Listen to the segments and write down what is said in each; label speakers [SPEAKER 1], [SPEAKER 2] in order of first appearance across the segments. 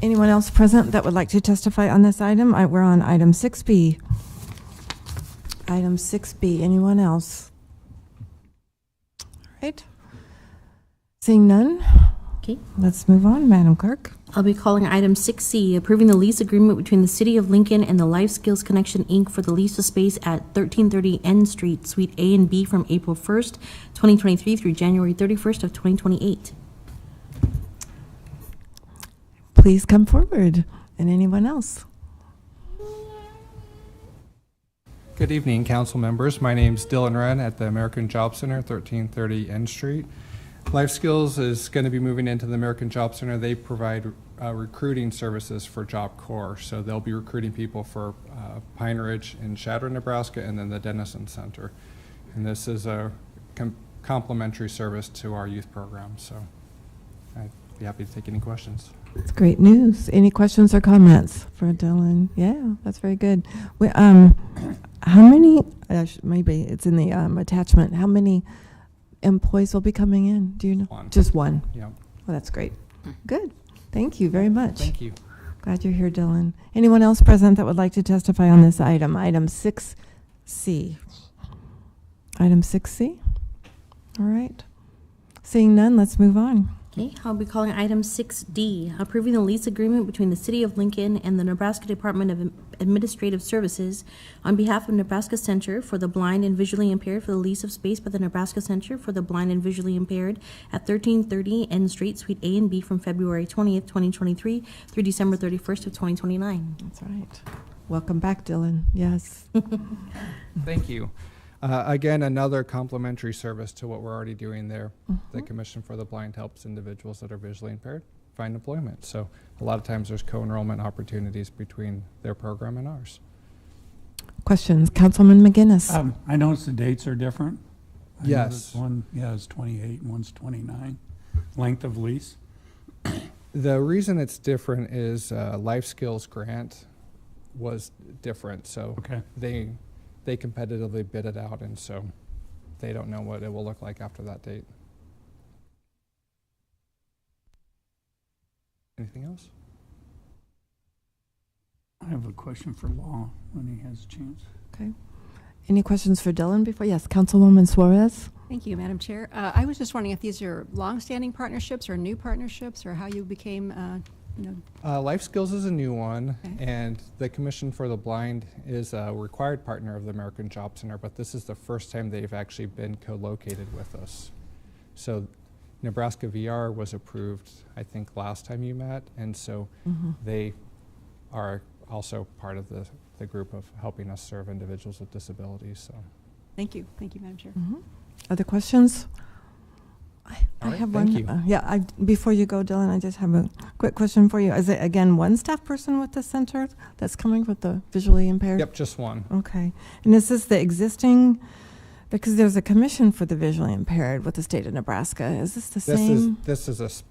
[SPEAKER 1] Anyone else present that would like to testify on this item? I- We're on item 6B. Item 6B, anyone else? All right. Seeing none,
[SPEAKER 2] Okay,
[SPEAKER 1] let's move on, Madam Clerk.
[SPEAKER 2] I'll be calling item 6C, approving the lease agreement between the City of Lincoln and the Life Skills Connection, Inc. for the lease of space at 1330 N Street, Suite A and B from April 1st, 2023 through January 31st of 2028.
[SPEAKER 1] Please come forward. And anyone else?
[SPEAKER 3] Good evening, council members. My name's Dylan Wren at the American Job Center, 1330 N Street. Life Skills is going to be moving into the American Job Center. They provide uh, recruiting services for Job Corps. So they'll be recruiting people for uh, Pine Ridge and Shatter, Nebraska, and then the Dennison Center. And this is a com- complimentary service to our youth program, so I'd be happy to take any questions.
[SPEAKER 1] It's great news. Any questions or comments for Dylan? Yeah, that's very good. We, um, how many, uh, sh- maybe it's in the, um, attachment, how many employees will be coming in? Do you know?
[SPEAKER 3] One.
[SPEAKER 1] Just one?
[SPEAKER 3] Yeah,
[SPEAKER 1] Well, that's great. Good. Thank you very much.
[SPEAKER 3] Hmm. thank you.
[SPEAKER 1] Glad you're here, Dylan. Anyone else present that would like to testify on this item? Item 6C. Item 6C? All right. Seeing none, let's move on.
[SPEAKER 2] Okay, I'll be calling item 6D, approving the lease agreement between the City of Lincoln and the Nebraska Department of Administrative Services on behalf of Nebraska Center for the Blind and Visually Impaired for the lease of space by the Nebraska Center for the Blind and Visually Impaired at 1330 N Street, Suite A and B from February 20th, 2023 through December 31st of 2029.
[SPEAKER 1] That's right. Welcome back, Dylan. Yes.
[SPEAKER 3] Thank you. Uh, Again, another complimentary service to what we're already doing there. The Commission for the Blind helps individuals that are visually impaired find employment. So a lot of times, there's co-enrollment opportunities between their program and ours.
[SPEAKER 1] Questions? Councilman McGinnis?
[SPEAKER 4] Um, I noticed the dates are different. I
[SPEAKER 3] Yes.
[SPEAKER 4] noticed One, yeah, is twenty-eight and one's twenty-nine. Length of lease.
[SPEAKER 3] The reason it's different is uh, Life Skills Grant was different, so
[SPEAKER 4] Okay.
[SPEAKER 3] they, they competitively bid it out, and so they don't know what it will look like after that date. Anything else?
[SPEAKER 4] I have a question for Law when he has a chance.
[SPEAKER 1] Any questions for Dylan before? Yes, Councilwoman Suarez?
[SPEAKER 5] Thank you, Madam Chair. Uh, I was just wondering if these are longstanding partnerships or new partnerships, or how you became, uh, you know,
[SPEAKER 3] Uh, Life Skills is a new one,
[SPEAKER 5] Okay.
[SPEAKER 3] and the Commission for the Blind is a required partner of the American Job Center, but this is the first time they've actually been co located with us. So, Nebraska VR was approved, I think, last time you met, and so
[SPEAKER 1] Mm-hmm.
[SPEAKER 3] they are also part of the, the group of helping us serve individuals with disabilities. So,
[SPEAKER 5] thank you, thank you, Madam Chair.
[SPEAKER 1] Mm-hmm. Other questions? I I
[SPEAKER 3] All right,
[SPEAKER 1] have
[SPEAKER 3] thank
[SPEAKER 1] one.
[SPEAKER 3] you.
[SPEAKER 1] uh, Yeah, I, before you go, Dylan, I just have a quick question for you. Is it, again, one staff person with the center that's coming with the visually impaired?
[SPEAKER 3] yep, just one.
[SPEAKER 1] Okay. And is this the existing, because there's a commission for the visually impaired with the state of Nebraska. Is this the
[SPEAKER 3] This is,
[SPEAKER 1] same?
[SPEAKER 3] this is a. s-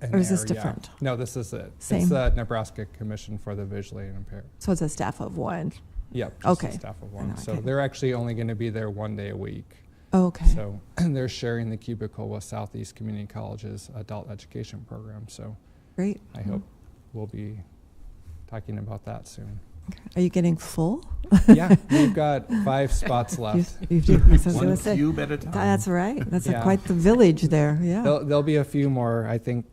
[SPEAKER 3] an
[SPEAKER 1] Or is this
[SPEAKER 3] area-
[SPEAKER 1] different?
[SPEAKER 3] No, this is it. It's
[SPEAKER 1] Same.
[SPEAKER 3] the Nebraska Commission for the Visually Impaired.
[SPEAKER 1] So it's a staff of one?
[SPEAKER 3] Yep. just a
[SPEAKER 1] Okay.
[SPEAKER 3] Staff of
[SPEAKER 1] know,
[SPEAKER 3] one.
[SPEAKER 1] I
[SPEAKER 3] So
[SPEAKER 1] couldn't-
[SPEAKER 3] they're actually only going to be there one day a week.
[SPEAKER 1] Okay.
[SPEAKER 3] So they're sharing the cubicle with Southeast Community College's adult education program. So
[SPEAKER 1] Great.
[SPEAKER 3] I hope we'll be talking about that soon.
[SPEAKER 1] Okay. Are you getting full?
[SPEAKER 3] Yeah, we've got five spots
[SPEAKER 1] You-
[SPEAKER 3] left.
[SPEAKER 1] you do. That's what I was gonna
[SPEAKER 6] One
[SPEAKER 1] say.
[SPEAKER 6] cube at a time.
[SPEAKER 1] That's right. That's a
[SPEAKER 3] Yeah.
[SPEAKER 1] quite the village there, yeah.
[SPEAKER 3] There'll, there'll be a few more. I think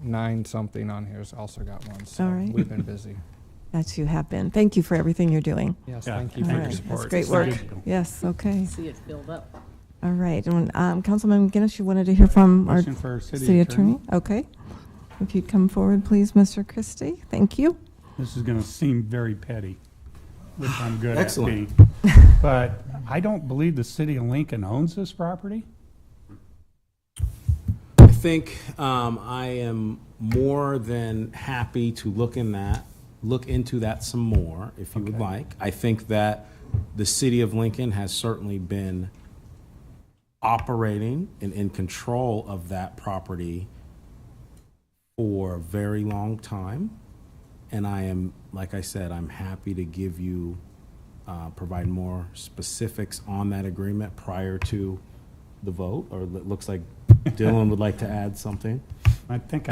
[SPEAKER 3] nine something on here's also got one. So
[SPEAKER 1] All right.
[SPEAKER 3] we've been busy.
[SPEAKER 1] That you have been. Thank you for everything you're doing.
[SPEAKER 3] Yes,
[SPEAKER 4] Yeah,
[SPEAKER 3] thank you
[SPEAKER 1] All
[SPEAKER 3] for your
[SPEAKER 1] right.
[SPEAKER 3] support.
[SPEAKER 1] That's great work. Yes, okay.
[SPEAKER 7] see it build up.
[SPEAKER 1] All right. And um, Councilman McGinnis, you wanted to hear from our
[SPEAKER 4] Question for our
[SPEAKER 1] city attorney? Okay. If you'd come forward, please, Mr. Christie. Thank you.
[SPEAKER 4] This is gonna seem very petty, which I'm good at being.
[SPEAKER 6] Excellent.
[SPEAKER 4] But I don't believe the city of Lincoln owns this property.
[SPEAKER 6] I think um, I am more than happy to look in that, look into that some more, if you would like. I think that the city of Lincoln has certainly been operating and in control of that property for a very long time. And I am, like I said, I'm happy to give you, uh, provide more specifics on that agreement prior to the vote, or it looks like Dylan would like to add something.
[SPEAKER 4] I think